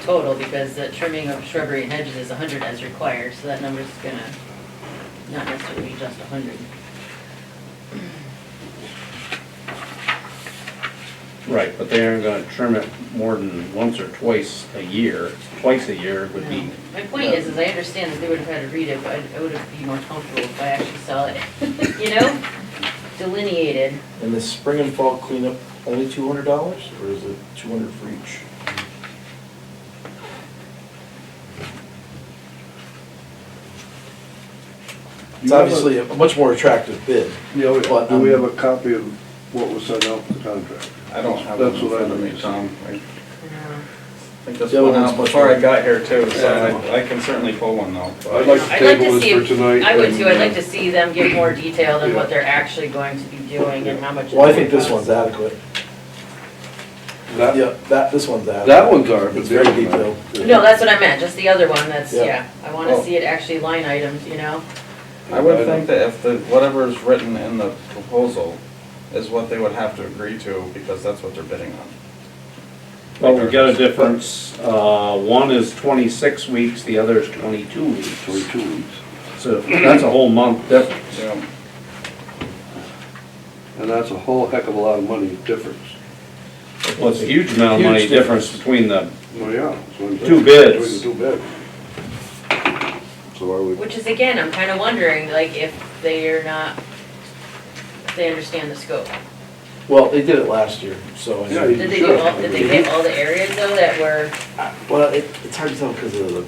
total, because the trimming of shrubbery and hedges is hundred as required, so that number's gonna not necessarily be just hundred. Right, but they aren't gonna trim it more than once or twice a year. Twice a year would be, Um, My point is, is I understand that they would have had to read it, but I- I would have been more comfortable if I actually saw it, you know? Delineated. And the spring and fall cleanup, only two hundred dollars, or is it two hundred for each? It's You have a- obviously a much more attractive bid. Yeah, we- But, do we um, have a copy of what was sent out for the contract? I don't have one That's in what I front of me, mean. Tom. I Um, think this The other went one's out much before I more- got here too, so Yeah. uh, I I can certainly pull one though. I'd like to I'd like table to see this for if- tonight. I would and, too, I'd like uh, to see them give more detail than what they're actually going to be doing and how much. Well, I it's think gonna this one's cost. adequate. That, Yeah, that, this one's adequate. that one's our, but It's the very other one- detailed. No, that's what I meant, just the other one, that's, Yeah. yeah, I wanna Oh. see it actually line items, you know? I would think that if the, whatever is written in the proposal is what they would have to agree to because that's what they're bidding on. well, we got a difference. Uh, one is twenty-six weeks, the other is twenty-two Twenty weeks. two weeks. So that's a whole month difference. Yeah. And that's a whole heck of a lot of money difference. Well, it's a huge amount of money Huge difference difference. between the, Well, yeah. that's what I'm saying. Two bids. Between the Two bids. So I would, Which is again, I'm kinda wondering, like, if they're not, if they understand the scope. Well, they did it last year, so. I Yeah, mean, Did they do all, did they get all the areas though that were, I- Well, it, it's hard to tell because of the,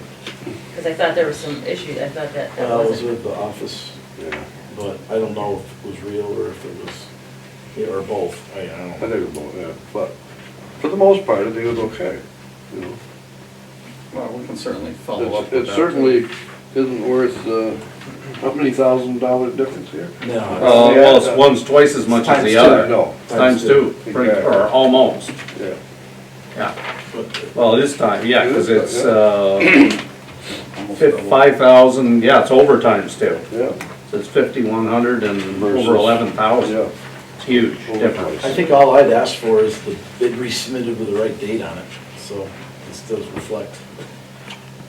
cause I thought there was some issues, I thought that that well, I was wasn't. with the office, yeah, but I don't know if it was real or if it was, yeah, or both. I, I I don't know. think it was, both, yeah, but for the most part, I think it was okay, you know. Well, we can certainly follow up It's- with that. It certainly isn't worth, uh, how many thousand dollar difference here? No. uh, it's- well, it's- one's twice as much as Times the two, other. No, Times two, pretty, or almost, yeah. yeah. but- Well, it is time, yeah, because It it's, is uh, Almost double. five thousand, yeah, it's overtimes too. Yeah, So it's fifty-one hundred and Versus- over eleven thousand, yeah. it's huge Over I difference. twice. think all I'd asked for is the bid resubmitted with the right date on it, so this does reflect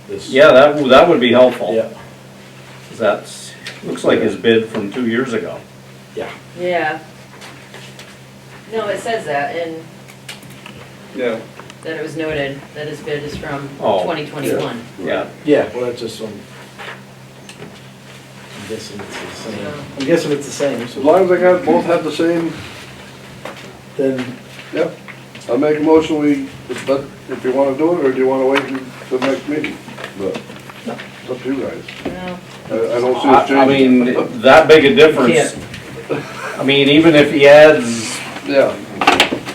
this. Yeah, that, w- that would be helpful. Yeah, 'cause That's, looks like his bid from two years ago. yeah. Yeah. No, it says that and Yeah, that it was noted that his bid is from Oh, twenty twenty-one. Yeah, Yeah, well, that's just some, I'm guessing it's the same, I'm guessing it's the same, As so long as they got, both have the same, then, yep. I make a motion, we, but if you wanna do it, or do you wanna wait until the next meeting? But, it's up to you guys. No, I, I don't see I us I changing. mean, that big a difference. I mean, even if he adds, Yeah,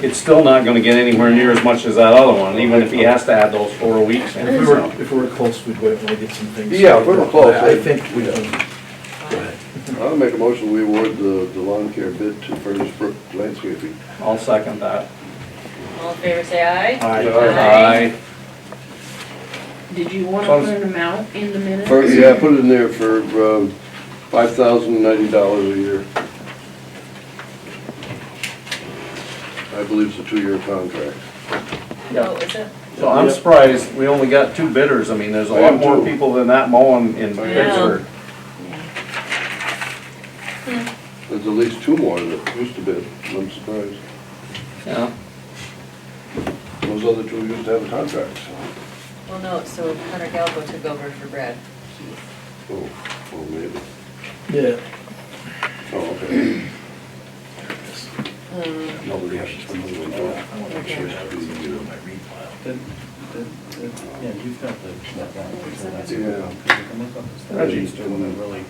it's still not gonna get anywhere near as much as that other one, even if he has to add those four weeks in. if we were, if we were close, we'd wait when we get some things. Yeah, if we were close, I I'd- think we yeah. can, I'll make a motion, we award the, the lawn care bid to Furnace Brook Landscaping. I'll second that. all in favor, say aye. I, Aye. Did you want to Sounds- put an amount in the minutes? For, yeah, put it in there for, um, five thousand ninety dollars a year. I believe it's a two-year contract. Yeah. Oh, is it? So I'm Yep. surprised we only got two bidders. I mean, there's a I lot am more too. people than that mowing in I am. Pittsburgh. There's at least two more that used to bid, I'm surprised. Yeah. Those other two used to have a contract, so, Well, no, so Hunter Galbo took over for Brad. oh, well, maybe. yeah, Oh, okay. Um, Nobody has to spend money on that. I want to make sure I have everything good on my read file. Yeah, you've got Reggie's doing it really.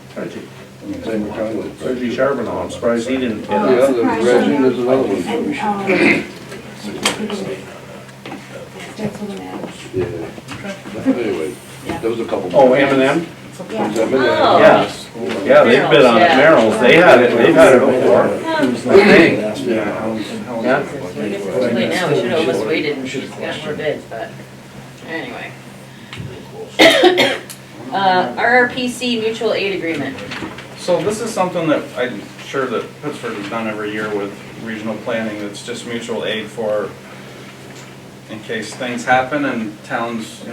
Same with Conway. Reggie Charbonneau, I'm surprised he didn't Yeah, hit it. there's Reggie, there's another one. too. And, um, that's what it is. Yeah. Anyway, there was a couple. Oh, M and M? Yeah. Them in there. Oh. Yeah, yeah, they've bid on it, Merrill's, they had it, they've had it before. Yeah. Well, I guess it's too late now, we should have almost waited and just gotten more bids, but, anyway. Uh, RRPC mutual aid agreement. So this is something that I'm sure that Pittsburgh has done every year with regional planning, it's just mutual aid for in case things happen and towns, you know,